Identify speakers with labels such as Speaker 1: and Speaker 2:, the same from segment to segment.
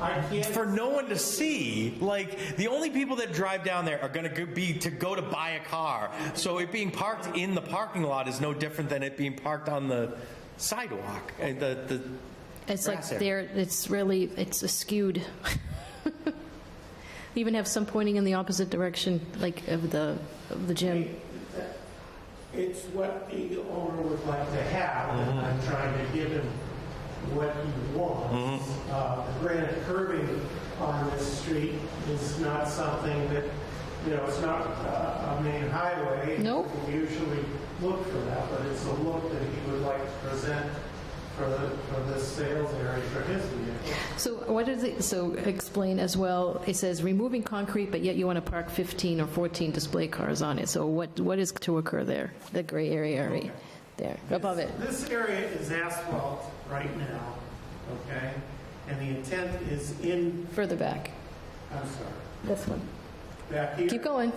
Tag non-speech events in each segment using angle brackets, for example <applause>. Speaker 1: I can't.
Speaker 2: for no one to see. Like the only people that drive down there are going to be to go to buy a car. So it being parked in the parking lot is no different than it being parked on the sidewalk. Uh, The the
Speaker 3: It's like
Speaker 2: grass area.
Speaker 3: there, it's really, it's skewed. <laughs> They Even have some pointing in the opposite direction, like of the, of the gym.
Speaker 1: It's what the owner would like to have, and I'm trying to give him what he wants. Uh, the granite curving on this street is not something that, you know, it's not uh, a main highway.
Speaker 3: No.
Speaker 1: We usually look for that, but it's a look that he would like to present for the, for this sales area for his vehicle.
Speaker 3: So what is it, so explain as well, it says removing concrete, but yet you want to park 15 or 14 display cars on it. So what, what is to occur there? The gray area, right there, above it.
Speaker 1: This area is asphalt right now, okay? And the intent is in,
Speaker 3: Further back,
Speaker 1: I'm sorry,
Speaker 3: this one.
Speaker 1: back here.
Speaker 3: Keep going.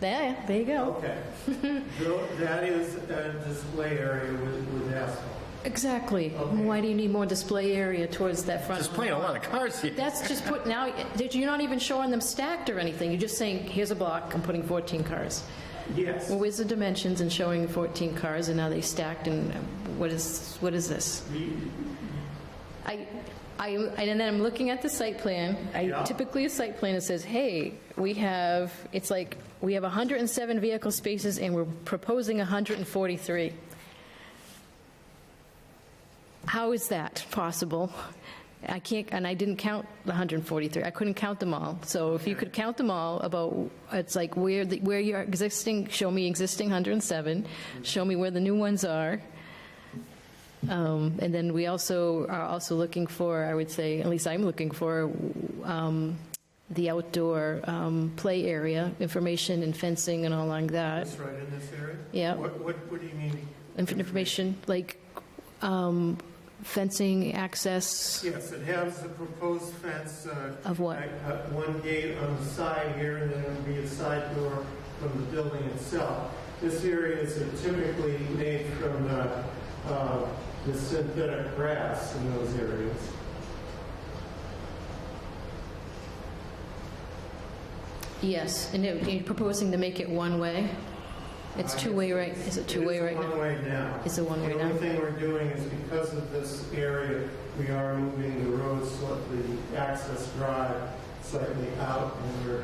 Speaker 3: There, there you go. <laughs>
Speaker 1: Okay. Tho- That is a display area with, with asphalt.
Speaker 3: Exactly. Why do you need more display area towards that front?
Speaker 2: There's playing a lot of cars here.
Speaker 3: That's just put, now, you're not even showing them stacked or anything. You're just saying, here's a block, I'm putting 14 cars.
Speaker 1: Yes.
Speaker 3: Well, where's the dimensions and showing 14 cars, and are they stacked, and what is, what is this?
Speaker 1: The-
Speaker 3: I, I, and then I'm looking at the site plan. I
Speaker 1: Yeah.
Speaker 3: Typically, a site plan, it says, hey, we have, it's like, we have 107 vehicle spaces, and we're proposing 143. How is that possible? I can't, and I didn't count the 143, I couldn't count them all. So if you could count them all, about, it's like where, the- where your existing, show me existing 107, show me where the new ones are. Um, And then we also are also looking for, I would say, at least I'm looking for, um, the outdoor um, play area, information and fencing and all like that.
Speaker 1: This right in this area?
Speaker 3: Yeah.
Speaker 1: What, what, what do you mean?
Speaker 3: Inf- Information, like um, fencing, access,
Speaker 1: Yes, it has the proposed fence. uh,
Speaker 3: Of what?
Speaker 1: like, uh, One gate on the side here, and then it'll be a side door from the building itself. This area is typically made from uh, uh, the synthetic grass in those areas.
Speaker 3: yes. And it- you're proposing to make it one-way? It's two-way, right? Is it two-way right
Speaker 1: It is
Speaker 3: now?
Speaker 1: one-way now.
Speaker 3: It's a one-way
Speaker 1: The
Speaker 3: now.
Speaker 1: only thing we're doing is because of this area, we are moving the road slightly, access drive slightly out, and we're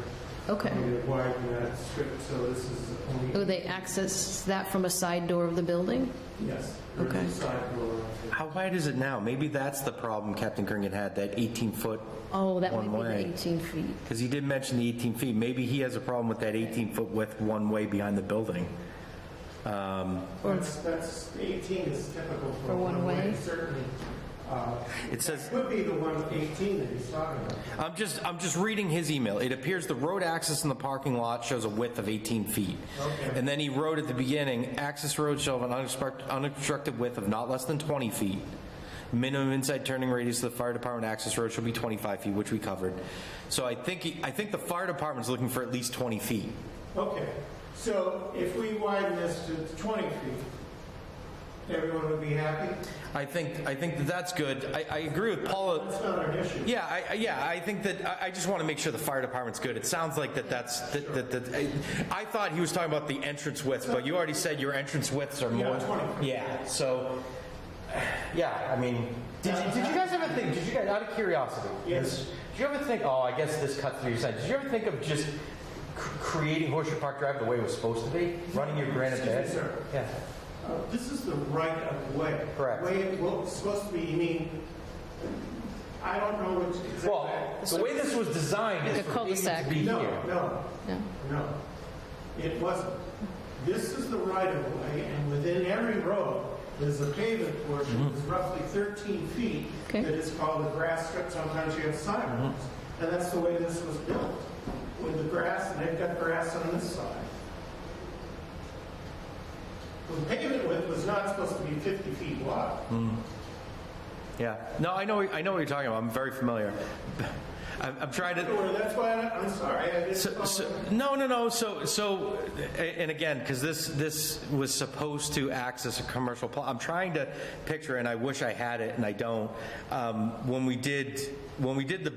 Speaker 3: Okay.
Speaker 1: going to widen that strip, so this is only...
Speaker 3: Oh, they access that from a side door of the building?
Speaker 1: Yes. there's
Speaker 3: Okay.
Speaker 1: a side door.
Speaker 2: How wide is it now? Maybe that's the problem Captain Kringen had, that 18 foot,
Speaker 3: Oh, that might be
Speaker 2: One-way.
Speaker 3: the 18 feet.
Speaker 2: because he did mention the 18 feet. Maybe he has a problem with that 18 foot width one way behind the building.
Speaker 1: That's, that's, 18 is typical for
Speaker 3: For one
Speaker 1: one-way,
Speaker 3: way?
Speaker 1: certainly. Uh,
Speaker 2: It says,
Speaker 1: Would be the one 18 that he's talking about.
Speaker 2: I'm just, I'm just reading his email. It appears the road access in the parking lot shows a width of 18 feet.
Speaker 1: Okay.
Speaker 2: And then he wrote at the beginning, access road shall have an unexpect- unobstructed width of not less than 20 feet. Minimum inside turning radius of the fire department access road shall be 25 feet, which we covered. So I think, he- I think the fire department's looking for at least 20 feet.
Speaker 1: Okay, so if we widen this to 20 feet, everyone would be happy?
Speaker 2: I think, I think that that's good. I, I agree with Paula.
Speaker 1: That's not an issue.
Speaker 2: Yeah, I, I- yeah, I think that, I, I just want to make sure the fire department's good. It sounds like that that's, that, that, that- I, I thought he was talking about the entrance widths, but you already said your entrance widths are more.
Speaker 1: Yeah, 20.
Speaker 2: Yeah, so, yeah, I mean, did you, did you guys ever think, did you guys, out of curiosity?
Speaker 1: Yes.
Speaker 2: Did you ever think, oh, I guess this cuts through your sentence, did you ever think of just c- creating Horseshoe Park Drive the way it was supposed to be? Running your granite
Speaker 1: Excuse me,
Speaker 2: bed?
Speaker 1: sir.
Speaker 2: Yeah,
Speaker 1: Uh, This is the right of way.
Speaker 2: Correct.
Speaker 1: Way it looks supposed to be, you mean, I don't know which exactly.
Speaker 2: well, the way this was designed
Speaker 3: Like
Speaker 2: is
Speaker 3: a
Speaker 2: for people to
Speaker 3: cul-de-sac.
Speaker 2: be
Speaker 1: No,
Speaker 2: here.
Speaker 1: no,
Speaker 3: No.
Speaker 1: no. It wasn't. This is the right of way, and within every road, there's a pavement
Speaker 2: Mm-hmm.
Speaker 1: portion, that's roughly 13 feet,
Speaker 3: Okay.
Speaker 1: that is called a grass strip, sometimes you have sidewalks.
Speaker 2: Mm-hmm.
Speaker 1: And that's the way this was built, with the grass, and they've got grass on this side. The pavement width was not supposed to be 50 feet wide.
Speaker 2: Mm-hmm. Yeah. No, I know. I know what you're talking about. I'm very familiar. I'm, I'm trying to.
Speaker 1: Well, That's why, I- I'm sorry, I just...
Speaker 2: So, so, no, no, no. So, so, and again, because this this was supposed to access a commercial. Pl- I'm trying to picture, and I wish I had it, and I don't. Um, when we did when we did the